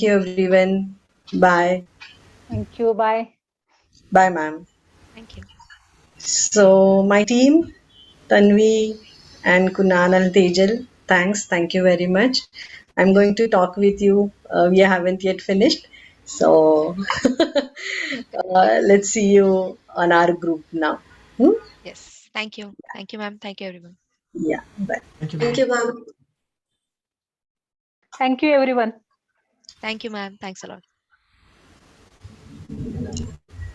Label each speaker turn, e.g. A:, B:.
A: you, everyone. Bye.
B: Thank you. Bye.
A: Bye, ma'am.
C: Thank you.
A: So, my team, Tanvi and Kunal and Tejal, thanks. Thank you very much. I'm going to talk with you. Uh, we haven't yet finished. So, uh, let's see you on our group now. Hmm?
C: Yes. Thank you. Thank you, ma'am. Thank you, everyone.
A: Yeah. Bye.
D: Thank you. ma'am.
E: Thank you, ma'am.
B: Thank you, everyone.
C: Thank you, ma'am. Thanks a lot.